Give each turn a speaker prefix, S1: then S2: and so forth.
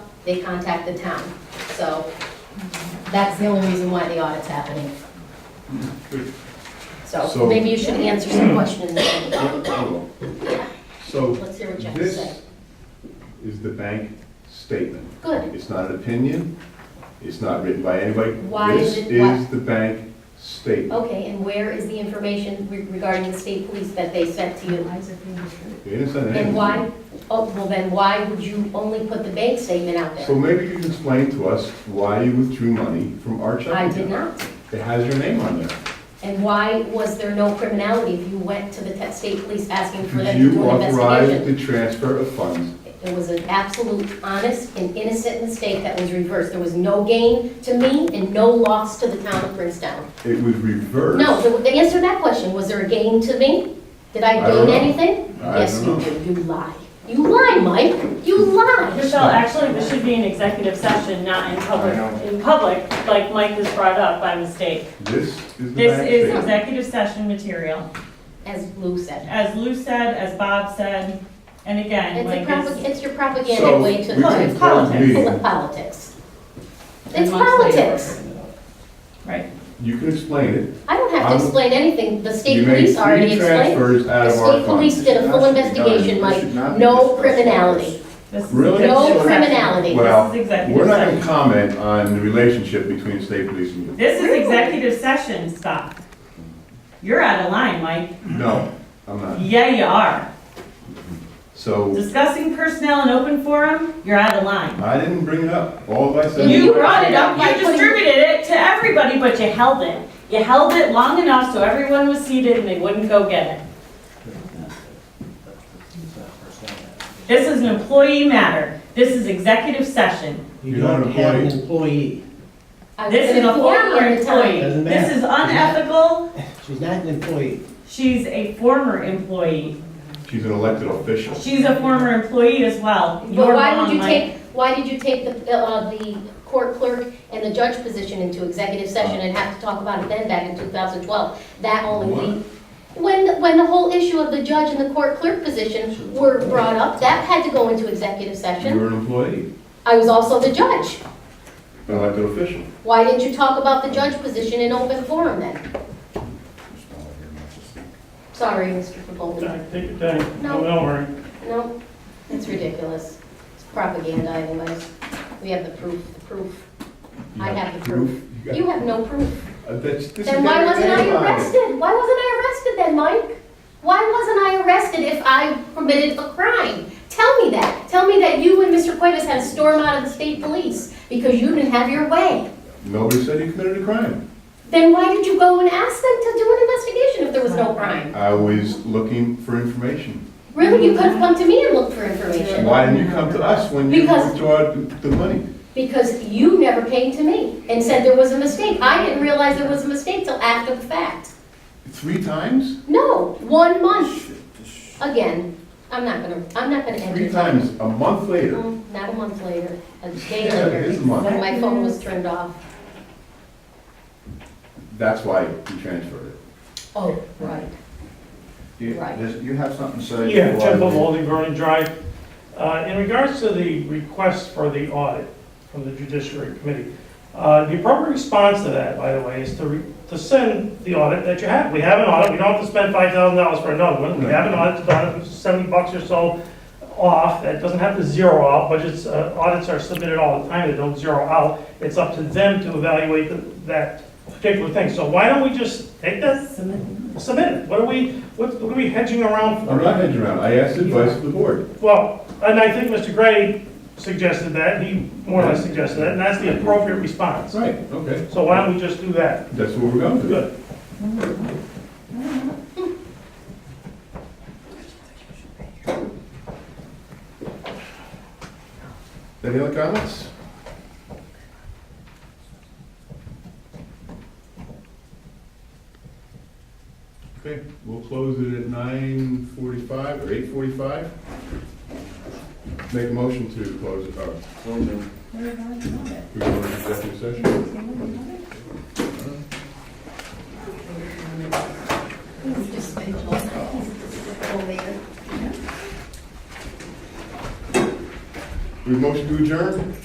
S1: they contact the town. So that's the only reason why the audit's happening. So
S2: So-
S1: maybe you should answer some questions.
S2: So
S1: Let's hear what you have to say.
S2: this is the bank statement.
S1: Good.
S2: It's not an opinion. It's not written by anybody.
S1: Why is it-
S2: This
S1: why-
S2: is the bank statement.
S1: Okay, and where is the information re- regarding the state police that they sent to you?
S2: You understand that?
S1: Oh, And why, oh, well then, why would you only put the bank statement out
S2: So
S1: there?
S2: maybe you can explain to us why you withdrew money from our checking
S1: I
S2: account.
S1: did not.
S2: It has your name on there.
S1: And why was there no criminality if you went to the te- state police asking for them to
S2: You
S1: do an
S2: authorized
S1: investigation?
S2: the transfer of funds.
S1: It was an absolute honest and innocent mistake that was reversed. There was no gain to me and no loss to the town of Princetown.
S2: It was reversed.
S1: No, the- the answer to that question, was there a gain to me? Did I
S2: I
S1: gain
S2: don't know.
S1: anything?
S2: I
S1: Yes, you
S2: don't
S1: did, you lie. You lie, Mike, you lie.
S3: Michelle, actually, we should be in executive session, not in public,
S2: I know.
S3: in public, like Mike was brought up by mistake.
S2: This is the
S3: This
S2: bank
S3: is
S2: statement.
S3: executive session material,
S1: As Lou said.
S3: as Lou said, as Bob said, and again,
S1: It's
S3: like
S1: a
S3: it's.
S1: propag, it's your propaganda
S2: So
S1: way
S2: we
S1: to,
S3: No,
S2: can
S3: it's
S1: to
S2: close the
S3: politics.
S1: full of
S2: meeting.
S1: politics. It's politics.
S3: Right.
S2: You can explain it.
S1: I don't have to
S2: I'm-
S1: explain anything, the
S2: You
S1: state
S2: made
S1: police already
S2: three
S1: explained.
S2: transfers out
S1: The
S2: of our
S1: state police
S2: funds.
S1: did a full
S4: It should not be done.
S1: investigation,
S4: It
S1: Mike,
S4: should not be
S1: no
S4: discussed like
S1: criminality,
S3: This is
S2: Really?
S3: executive
S1: no
S3: session.
S1: criminality.
S2: Well,
S3: This is executive
S2: We're not gonna
S3: session.
S2: comment on the relationship between state police and you.
S3: This is executive session stuff. You're out of line, Mike.
S2: No, I'm not.
S3: Yeah, you are.
S2: So
S3: Discussing personnel in open forum, you're out of line.
S2: I didn't bring it up. All I said.
S3: You
S2: was-
S3: brought it up, you distributed it to everybody, but you held it. You held it long enough so everyone was seated and they wouldn't go get it. This is an employee matter. This is executive session.
S2: You're not an
S4: don't have an employee.
S1: I was
S3: This
S1: an
S3: is a former
S1: employee at the time.
S3: employee.
S4: Doesn't matter.
S3: This is unethical.
S4: She's not an employee.
S3: She's a former employee.
S2: She's an elected official.
S3: She's a former employee as well. You
S1: But
S3: were
S1: why would
S3: wrong,
S1: you
S3: Mike.
S1: take, why did you take the, uh, the court clerk and the judge position into executive session and have to talk about it then back in 2012? That only, lead- when, when the whole issue of the judge and the court clerk position were brought up, that had to go into executive
S2: You
S1: session.
S2: were an employee,
S1: I was also the judge.
S2: an elected official.
S1: Why didn't you talk about the judge position in open forum then? Sorry, Mr. Goldenberg.
S5: Take your time.
S1: No.
S5: Don't worry.
S1: No, it's ridiculous. It's propaganda anyways. We have the proof, the proof.
S2: You
S1: I have the proof.
S2: got-
S1: You have no proof.
S2: Uh, that's- this
S1: Then
S2: is
S1: why
S2: every
S1: wasn't
S2: day
S1: I
S2: about it.
S1: arrested? Why wasn't I arrested then, Mike? Why wasn't I arrested if I committed a crime? Tell me that. Tell me that you and Mr. Cuevas had a storm out of the state police because you didn't have your way.
S2: Nobody said you committed a crime.
S1: Then why did you go and ask them to do an investigation if there was no crime?
S2: I was looking for information.
S1: Really, you could have come to me and looked for information
S2: Why didn't you come to us when you
S1: Because-
S2: withdrew the money?
S1: because you never came to me and said there was a mistake. I didn't realize there was a mistake till after the fact.
S2: Three times?
S1: No, one month. Again, I'm not gonna, I'm not gonna end
S2: Three
S1: it.
S2: times, a month later.
S1: Um, Not a month later, a day
S2: Yeah, it is
S1: later,
S2: a month.
S1: when my phone was turned off.
S2: That's why you transferred it.
S1: Oh, right.
S4: You
S1: Right.
S4: does- you have something to say?
S5: Yeah,
S4: before I
S5: Tim
S4: leave?
S5: Maloney, Vernon Drive. Uh, In regards to the request for the audit from the Judiciary Committee, uh, the appropriate response to that, by the way, is to, re- to send the audit that you have. We have an audit, we don't have to spend five thousand dollars for another one. We have an audit, it's about seventy bucks or so off, that doesn't have to zero out, budgets, uh, audits are submitted all the time, they don't zero out. It's up to them to evaluate the- that particular thing. So why don't we just take that, submit it? What are we, what what are we hedging around for?
S2: I'm not hedging around. I asked advice of the board.
S5: Well, and I think Mr. Gray suggested that, he more or less suggested that, and that's the appropriate response.
S2: Right, okay.
S5: So why don't we just do that?
S2: That's what we're going to do.
S5: Good.
S2: Any other comments? Okay, we'll close it at nine forty-five or eight forty-five. Make a motion to close it, oh, we go into executive session. We motion to adjourn?